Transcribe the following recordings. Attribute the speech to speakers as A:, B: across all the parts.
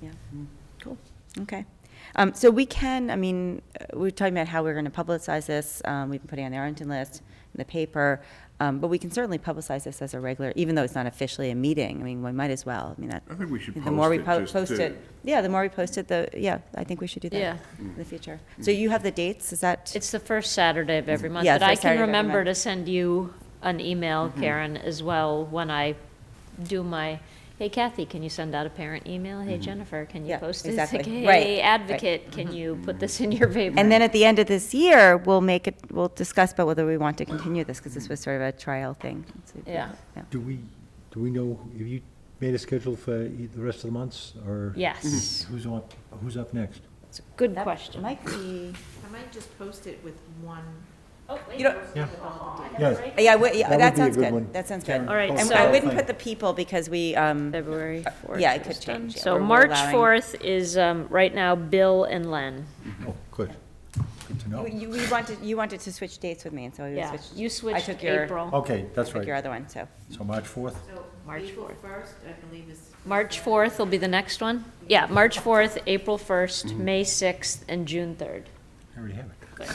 A: Yeah,
B: Mm-hmm.
A: cool, okay. Um, so we can, I mean, uh, we're talking about how we're gonna publicize this, um, we've been putting it on the Arlington list, in the paper, um, but we can certainly publicize this as a regular, even though it's not officially a meeting, I mean, we might as well, I mean, that.
B: I think we should
A: the more we
B: post it
A: po-
B: just
A: post
B: to-
A: it- Yeah, the more we post it, the, yeah, I think we should do that.
C: Yeah.
A: In the future.
B: Mm-hmm.
A: So you have the dates, is that?
C: It's the first Saturday of every month,
A: Yeah,
C: but
A: first
C: I
A: Saturday
C: can
A: of every
C: remember
A: month. Mm-hmm.
C: to send you an email, Karen, as well, when I do my, hey Kathy, can you send out a parent email? Hey Jennifer, can you
A: Mm-hmm. Yeah,
C: post this?
A: exactly.
C: Like,
A: Right,
C: Hey
A: right. Mm-hmm.
C: advocate, can you put this in your paper?
A: And then at the end of this year, we'll make it, we'll discuss about whether we want to continue this, because this was sort of a trial thing. So,
C: Yeah.
D: Do we, do we know, have you made a schedule for e- the rest of the months, or?
C: Yes,
D: Who's on, who's up next?
C: it's a good
A: Mm-hmm. That
C: question.
A: Might be,
E: I might just post it with one.
C: Oh,
A: you know,
D: Yeah.
C: Yes.
A: yeah, we- yeah, that
D: That would be a
A: sounds
D: good one.
A: good, that sounds good.
C: All right,
A: And
C: so-
A: I wouldn't put the people, because we, um,
C: February fourth.
A: yeah, it could change, yeah,
C: So
A: we're- we're
C: March
A: allowing-
C: fourth is, um, right now, Bill and Len.
F: Mm-hmm.
D: Oh, good, good to know.
A: you, you wanted, you wanted to switch dates with me, and so we
C: Yeah,
A: switched.
C: you switched
A: I took your-
C: April.
D: Okay,
A: I
D: that's
A: took your
D: right.
A: other one, so,
D: So March 4th?
E: So
C: March
E: April
C: 4th.
E: first, I believe is.
C: March fourth will be the next one? Yeah, March fourth, April first,
A: Mm-hmm.
C: May sixth, and June third.
D: I already have it.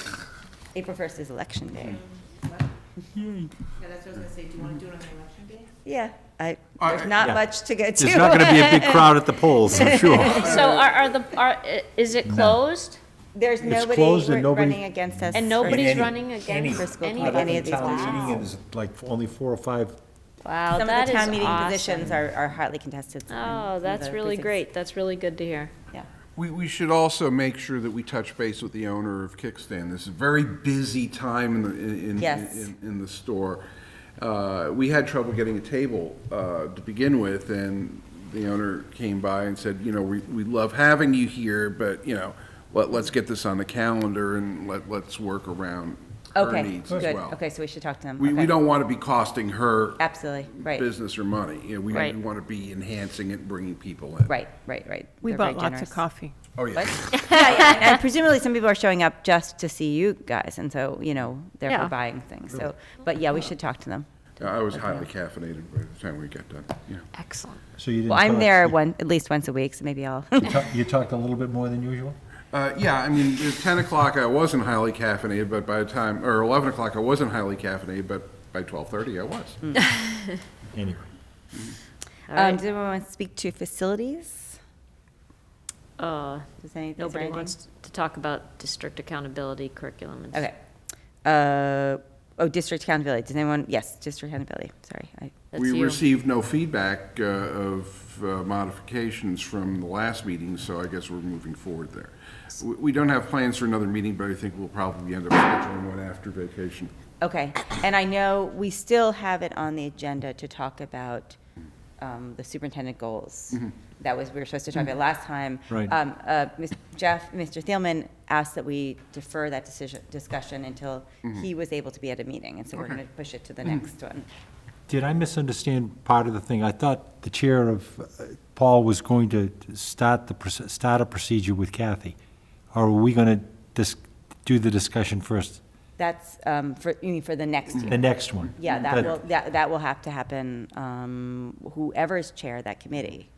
A: April first is election day.
D: Hmm.
E: Yeah, that's what I was gonna say, do you wanna do it on the election day?
A: Yeah, I,
B: I-
A: there's not
D: Yeah.
A: much to get to.
F: There's not going to be a big crowd at the polls, I'm sure.
C: So are, are the, are, i- is it closed?
A: There's nobody
D: closed and
A: re-
D: nobody-
A: running against us.
C: And
A: or
C: nobody's
A: anything.
C: running against
A: Any-
C: anybody?
A: Other than any of these
D: Town
A: positions.
D: meeting is like only four or five,
C: Wow,
A: Some of
C: that
A: the
C: is
A: town meeting positions
C: awesome.
A: are, are hotly contested. in-
C: Oh,
A: in
C: that's
A: the
C: really
A: precincts.
C: great. That's really good to hear.
A: Yeah.
B: We, we should also make sure that we touch base with the owner of Kickstand. This is a very busy time in the, in, in-
A: Yes.
B: in, in the store. Uh, we had trouble getting a table, uh, to begin with, and the owner came by and said, you know, we, we love having you here, but, you know, let, let's get this on the calendar and let, let's work around her
A: Okay,
B: needs as
A: good.
B: well.
A: Okay, so we should talk to them.
B: We, we
A: Okay.
B: don't want to be costing her
A: Absolutely, right,
B: business or money. You know, we
C: Right.
B: want to be enhancing it and bringing people in.
A: right, right, right.
G: We
A: They're very
G: bought lots of
A: generous.
G: coffee.
B: Oh, yeah.
A: Yeah, yeah, And and presumably, some people are showing up just to see you guys, and so, you know, therefore
C: Yeah.
A: buying things, so, but yeah, we should talk to them.
B: I was highly caffeinated by the time we got done, yeah.
C: Excellent.
D: so you didn't.
A: Well, I'm
D: talk-
A: there
D: you-
A: one, at least once a week, so maybe I'll,
D: you talk- You talked a little bit more than usual?
B: Uh, yeah, I mean, at ten o'clock, I wasn't highly caffeinated, but by the time, or eleven o'clock, I wasn't highly caffeinated, but by twelve-thirty, I was.
C: Hmm.
D: Anyway.
A: um, does anyone want to speak to facilities?
C: Uh,
A: Does any, is there
C: nobody
A: anything?
C: wants to talk about district accountability curriculum and.
A: Okay. Uh, oh, district accountability, does anyone, yes, district accountability, sorry, I,
C: that's
B: We
C: you.
B: received no feedback uh, of uh, modifications from the last meeting, so I guess we're moving forward there. We- We don't have plans for another meeting, but I think we'll probably end up scheduling one after vacation.
A: Okay, and I know we still have it on the agenda to talk about um, the superintendent goals. That was, we were supposed to talk about last time.
D: Mm-hmm. Right.
A: Um, uh, Ms. Jeff, Mr. Thielman asked that we defer that decision, discussion until
D: Mm-hmm.
A: he was able to be at a meeting, and so we're gonna push it to the next one.
D: Did I misunderstand part of the thing? I thought the chair of, uh, Paul was going to start the, proce- start a procedure with Kathy. Or are we going to do the discussion first,
A: That's um, for, you mean for the next
D: Mm-hmm. the
A: year?
D: next one?
A: Yeah, that will, that, that will have to happen, um, whoever's chair of that committee,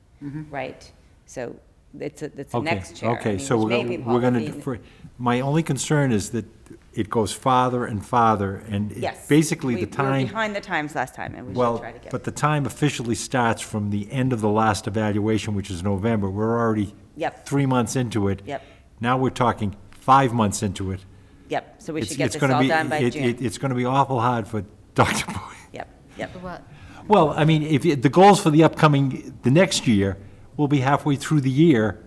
A: right? So it's, a- it's the
D: Mm-hmm. Okay,
A: next chair. I
D: Okay,
A: mean,
D: so
A: which
D: we're
A: may
D: gonna,
A: be
D: we're gonna,
A: Paul,
D: defer- my only concern is that it goes farther and farther, and it-
A: Yes.
D: basically
A: We-
D: the
A: We were
D: time,
A: behind the times last time, and we should
D: well,
A: try to get.
D: but the time officially starts from the end of the last evaluation, which is November. We're already
A: Yep.
D: three months into it.
A: Yep.
D: Now we're talking five months into it.
A: Yep, so we
D: It's-
A: should get
D: it's
A: this
D: gonna
A: all
D: be-
A: done by
D: it- it-
A: June.
D: It's gonna be awful hard for Dr. Boyd.
A: Yep, yep.
D: Well, I mean, if, you- the goals for the upcoming, the next year, will be halfway through the year,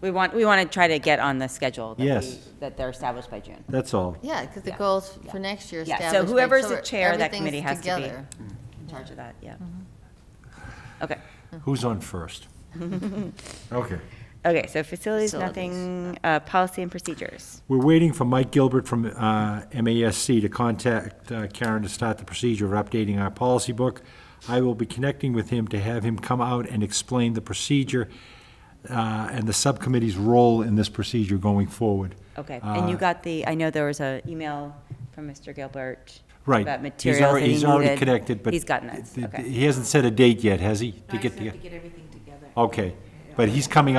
A: We want, we want to try to get on the schedule. that we-
D: Yes.
A: That they're established by June.
D: that's all.
H: Yeah, because the goals for next year
A: Yeah, so
H: established.
A: whoever's
H: so
A: the chair of that
H: everything's
A: committee has to be-
H: together. Mm-hmm.
A: In charge of that, yeah. Okay,
D: Who's on first? Okay.
A: okay, so facilities,
H: Facilities.
A: nothing, uh, policy and procedures.
D: We're waiting for Mike Gilbert from uh, MASC to contact uh, Karen to start the procedure of updating our policy book. I will be connecting with him to have him come out and explain the procedure uh, and the subcommittee's role in this procedure going forward.
A: Okay, and
D: Uh,
A: you got the, I know there was an email from Mr. Gilbert.
D: Right.
A: About
D: He's
A: materials that
D: already-
A: he
D: He's already
A: needed.
D: connected, but.
A: He's gotten it,
D: th- th-
A: okay.
D: He hasn't set a date yet, has he?
E: I
D: to
E: just
D: get
E: have
D: the-
E: to get everything together.
D: Okay, but he's coming